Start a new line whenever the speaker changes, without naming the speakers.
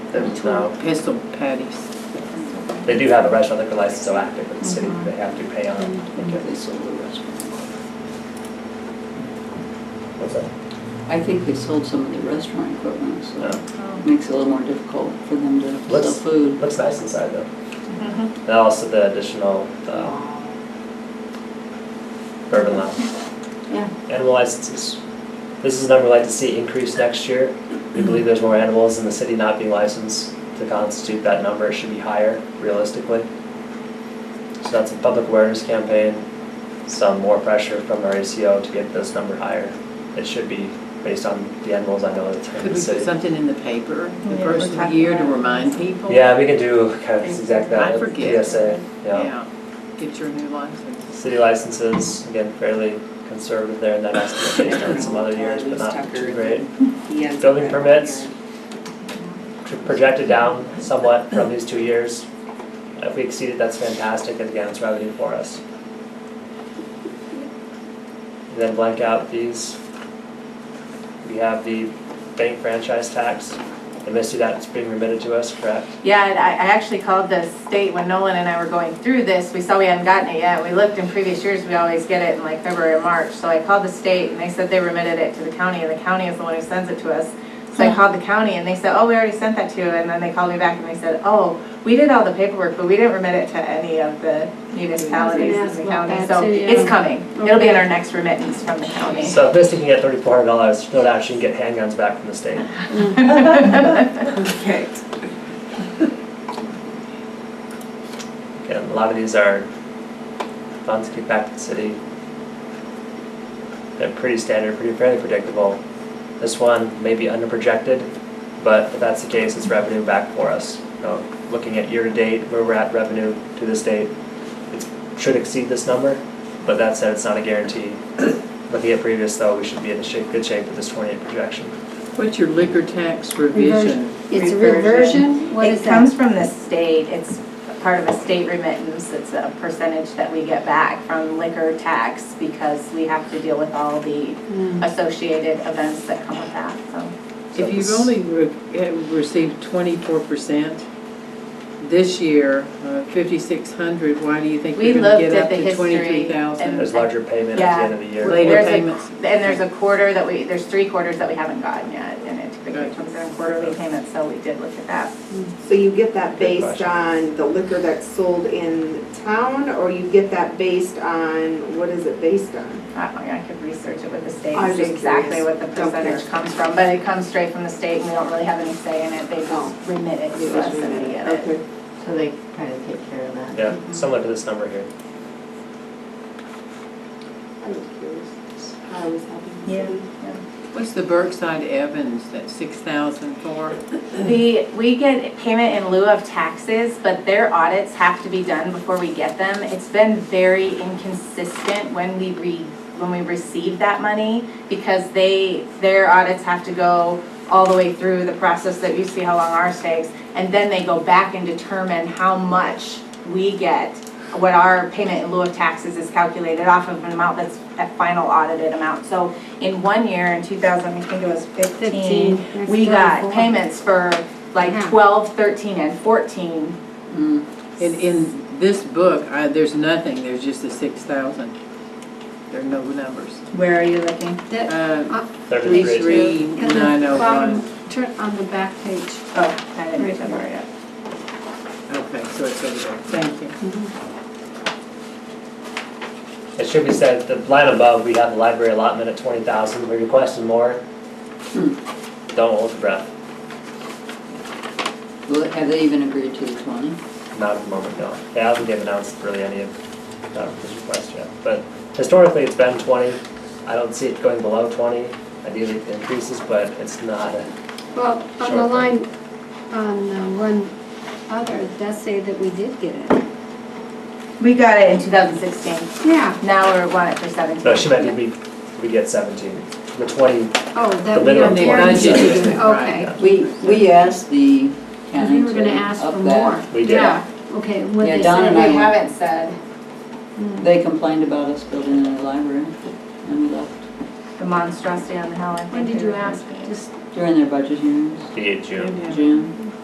There's no,
Pistol patties.
they do have a restaurant liquor license, so active with the city, they have to pay on. What's that?
I think they sold some of the restaurant equipment, so
No.
it makes it a little more difficult for them to sell
Let's-
food.
Looks nice inside though. And also the additional uh, bourbon lounge.
Yeah,
Animal licenses. This is a number we'd like to see increase next year. We believe there's more animals in the city not being licensed to constitute that number. It should be higher realistically. So that's a public awareness campaign, some more pressure from our ACO to get this number higher. It should be based on the animals I know that's in the
Could we put
city.
something in the paper the
Yeah,
first
we're talking
year to
about-
remind people?
Yeah, we can do kind of exact that.
I
with
forget.
PSA, yeah.
Yeah, get your new license.
City licenses, again, fairly conservative there in that estimate based on some other years, but not too great. Building permits. Tr- Projected down somewhat from these two years. If we exceed it, that's fantastic, and again, it's revenue for us. And Then blank out these. We have the bank franchise tax, and Misty, that's being remitted to us, correct?
Yeah, and I, I actually called the state when Nolan and I were going through this, we saw we hadn't gotten it yet, we looked in previous years, we always get it in like February or March, so I called the state and they said they remitted it to the county, and the county is the one who sends it to us. So I called the county and they said, oh, we already sent that to you, and then they called me back and they said, oh, we did all the paperwork, but we didn't remit it to any of the municipalities in the county, so it's coming, it'll be in our next remittance from the county.
So if Misty can get thirty-four hundred dollars, no doubt she can get handguns back from the state.
Perfect.
Again, a lot of these are funds kicked back to the city. They're pretty standard, pretty fairly predictable. This one may be underprojected, but if that's the case, it's revenue back for us. You know, looking at year-to-date, where we're at revenue to this date, it should exceed this number, but that said, it's not a guarantee. Looking at previous though, we should be in a shape, good shape with this twenty-eight projection.
What's your liquor tax revision?
It's a reversion, what is
It comes
that?
from the state, it's part of a state remittance, it's a percentage that we get back from liquor tax because we have to deal with all the
Hmm.
associated events that come with that, so.
So
If you've
this-
only re- eh, received twenty-four percent this year, uh, fifty-six hundred, why do you think
We
you're gonna
looked
get
at
up
the
to
history
twenty-three thousand?
and-
There's larger payment at the end of the year.
Later
There's a-
payments.
And there's a quarter that we, there's three quarters that we haven't gotten yet, and it typically
Right.
comes in quarterly payments, so we did look at that.
So you get that
Good
based
question.
on the liquor that's sold in town, or you get that based on, what is it based on?
I don't know, I could research it with the state, and
I was
see
just
exactly what
curious.
the
Don't care.
percentage comes from, but it comes straight from the state, and we don't really have any say in it, they
No.
just remit it to us and we get it.
Okay.
So they kind of take care of that.
Yeah, similar to this number here.
I was curious. I was having.
Yeah.
What's the Berkside Evans, that six thousand for?
The, we get payment in lieu of taxes, but their audits have to be done before we get them. It's been very inconsistent when we re, when we receive that money because they, their audits have to go all the way through the process that you see how long ours takes. And then they go back and determine how much we get, what our payment in lieu of taxes is calculated off of an amount that's that final audited amount. So in one year, in two thousand, I think it was fifteen,
Fifteen.
we got
That's really cool.
payments for like
Yeah.
12, 13, and 14.
Mm.
In, in this book, I, there's nothing, there's just the six thousand. There are no numbers.
Where are you looking?
That,
Uh,
They're
three,
great.
three,
at the
nine oh one.
bottom, turn on the back page.
Oh, I didn't reach that far yet.
Okay, so it's over there, thank you.
It should be said, the line above, we have the library allotment at twenty thousand, we requested more. Don't hold your breath,
Well, have they even agreed to the twenty?
not at the moment, no. They haven't given announced really any of uh, this request yet, but historically, it's been twenty. I don't see it going below twenty, ideally it increases, but it's not, a-
Well, on
Sure.
the line, on the one other, it does say that we did get it.
We got it in 2016.
Yeah.
Now we're wanting it for 17.
no, she meant if we, we get seventeen. The twenty,
Oh,
The
that we are
minimum
guaranteed to
budget.
do it,
Right.
okay.
We, we asked the
Because
county
we were gonna
to
ask for
up that.
more.
we did.
Yeah,
Okay, what
Yeah,
they
Donna
said.
and
we
I-
haven't said
They complained about us building a library and we left
the monstrosity on the hill. I think
When did
we
you
were
ask?
thinking.
Just,
during their budget hearings,
Be it June.
June.